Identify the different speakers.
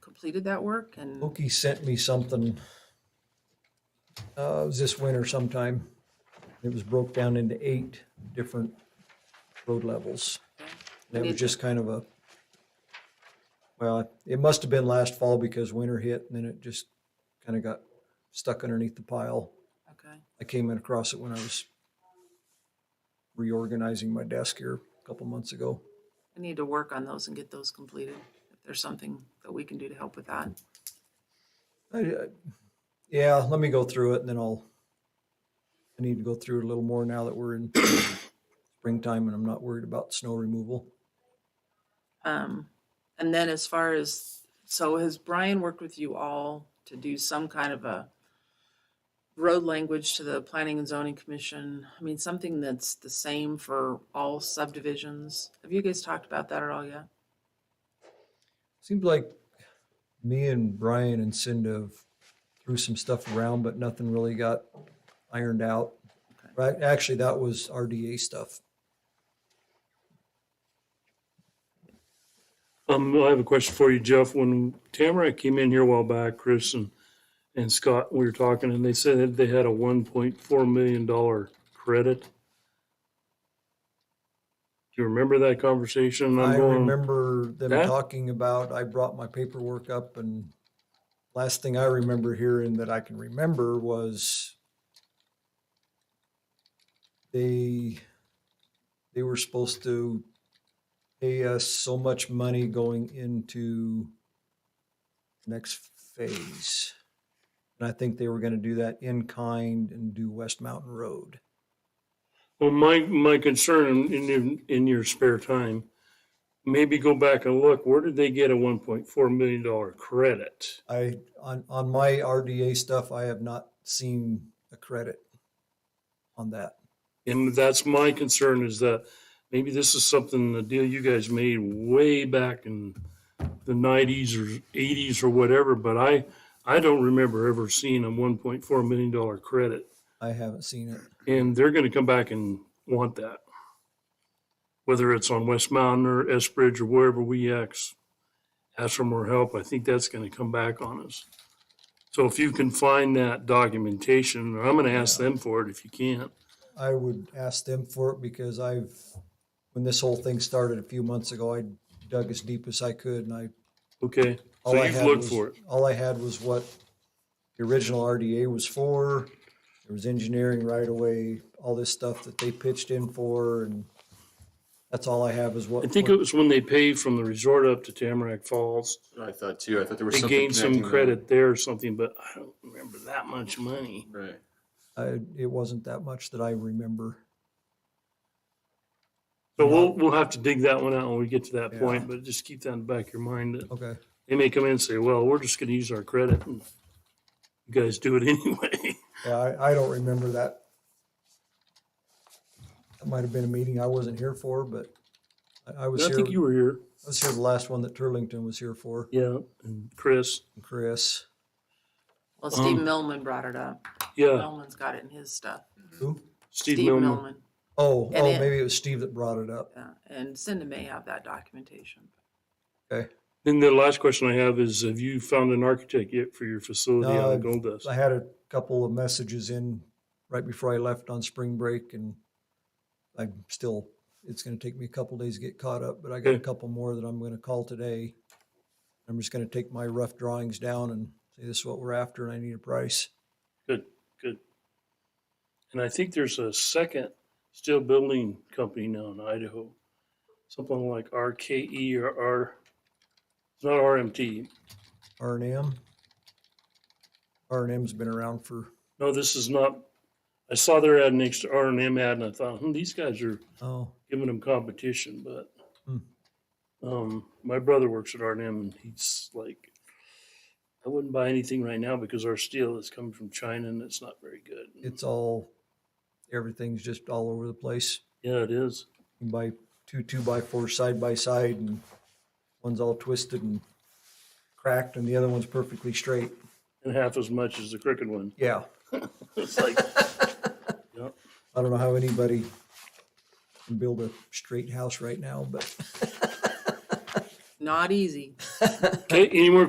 Speaker 1: completed that work and
Speaker 2: Oki sent me something, uh, it was this winter sometime. It was broke down into eight different road levels. And it was just kind of a, well, it must have been last fall because winter hit and then it just kind of got stuck underneath the pile.
Speaker 1: okay,
Speaker 2: I came in across it when I was reorganizing my desk here a couple months ago.
Speaker 1: I need to work on those and get those completed. If there's something that we can do to help with that.
Speaker 2: I, I- yeah, let me go through it and then I'll, I need to go through it a little more now that we're in springtime and I'm not worried about snow removal.
Speaker 1: Um, and then as far as, so has Brian worked with you all to do some kind of a road language to the Planning and Zoning Commission? I mean, something that's the same for all subdivisions? Have you guys talked about that at all yet?
Speaker 2: Seems like me and Brian and Cinda have threw some stuff around, but nothing really got ironed out.
Speaker 1: Okay.
Speaker 2: Right, actually, that was RDA stuff.
Speaker 3: Um, I have a question for you, Jeff. When Tamara came in here a while back, Chris and, and Scott, we were talking and they said that they had a one point four million dollar credit. Do you remember that conversation? I'm
Speaker 2: I
Speaker 3: going,
Speaker 2: remember them
Speaker 3: That-
Speaker 2: talking about, I brought my paperwork up and last thing I remember hearing that I can remember was they, they were supposed to pay us so much money going into next phase. And I think they were gonna do that in kind and do West Mountain Road.
Speaker 3: Well, my, my concern in, in, in your spare time, maybe go back and look, where did they get a one point four million dollar credit?
Speaker 2: I, on, on my RDA stuff, I have not seen a credit on that.
Speaker 3: And that's my concern is that maybe this is something, a deal you guys made way back in the nineties or eighties or whatever, but I, I don't remember ever seeing a one point four million dollar credit.
Speaker 2: I haven't seen it.
Speaker 3: And they're gonna come back and want that. Whether it's on West Mountain or S Bridge or wherever we X, ask for more help, I think that's gonna come back on us. So if you can find that documentation, I'm gonna ask them for it if you can't.
Speaker 2: I would ask them for it because I've, when this whole thing started a few months ago, I dug as deep as I could and I.
Speaker 3: Okay,
Speaker 2: all
Speaker 3: so
Speaker 2: I
Speaker 3: you've
Speaker 2: had
Speaker 3: looked
Speaker 2: was-
Speaker 3: for it.
Speaker 2: All I had was what the original RDA was for. There was engineering right away, all this stuff that they pitched in for and that's all I have is what.
Speaker 3: I think it was when they paid from the resort up to Tamarack Falls.
Speaker 4: I thought too. I thought there was
Speaker 3: They
Speaker 4: something.
Speaker 3: gained some
Speaker 4: connecting them.
Speaker 3: credit there or something, but I don't remember that much money.
Speaker 4: Right.
Speaker 2: I, it wasn't that much that I remember.
Speaker 3: So we'll, we'll have to dig that one out when we get to that
Speaker 2: Yeah.
Speaker 3: point, but just keep that in the back of your mind. that
Speaker 2: Okay.
Speaker 3: They may come in and say, well, we're just gonna use our credit and you guys do it anyway.
Speaker 2: Yeah, I, I don't remember that. That might have been a meeting I wasn't here for, but I, I was
Speaker 3: I
Speaker 2: here,
Speaker 3: think
Speaker 2: I
Speaker 3: you were here.
Speaker 2: was here the last one that Turlington was here for,
Speaker 3: Yeah, and Chris,
Speaker 2: and Chris.
Speaker 1: Well, Steve
Speaker 3: Um,
Speaker 1: Millman brought it up.
Speaker 3: yeah,
Speaker 1: Millman's got it in his stuff.
Speaker 3: Mm-hmm.
Speaker 2: Who?
Speaker 3: Oh, Steve Millman.
Speaker 2: Oh,
Speaker 1: And
Speaker 2: oh,
Speaker 1: it-
Speaker 2: maybe it was Steve that brought it up.
Speaker 1: yeah, And Cindy may have that documentation.
Speaker 2: Okay.
Speaker 3: Then the last question I have is, have you found an architect yet for your facility
Speaker 2: No,
Speaker 3: out
Speaker 2: I've-
Speaker 3: of Gold Dust?
Speaker 2: I had a couple of messages in right before I left on spring break and I'm still, it's gonna take me a couple days to get caught up, but I got a
Speaker 3: Okay.
Speaker 2: couple more that I'm gonna call today. I'm just gonna take my rough drawings down and say this is what we're after and I need a price.
Speaker 3: Good, good. And I think there's a second steel building company now in Idaho. Something like RKE or R, it's not RMT.
Speaker 2: R and M. R and M's been around for,
Speaker 3: No, this is not, I saw their ad next to R and M ad and I thought, hmm, these guys are
Speaker 2: oh,
Speaker 3: giving them competition, but
Speaker 2: Hmm.
Speaker 3: um, my brother works at R and M and he's like, I wouldn't buy anything right now because our steel is coming from China and it's not very good.
Speaker 2: it's all, everything's just all over the place.
Speaker 3: Yeah, it is.
Speaker 2: You can buy two two by fours side by side and one's all twisted and cracked and the other one's perfectly straight.
Speaker 3: And half as much as the crooked one.
Speaker 2: Yeah.
Speaker 3: It's like, yeah.
Speaker 2: I don't know how anybody can build a straight house right now, but.
Speaker 1: Not easy.
Speaker 3: Okay, any more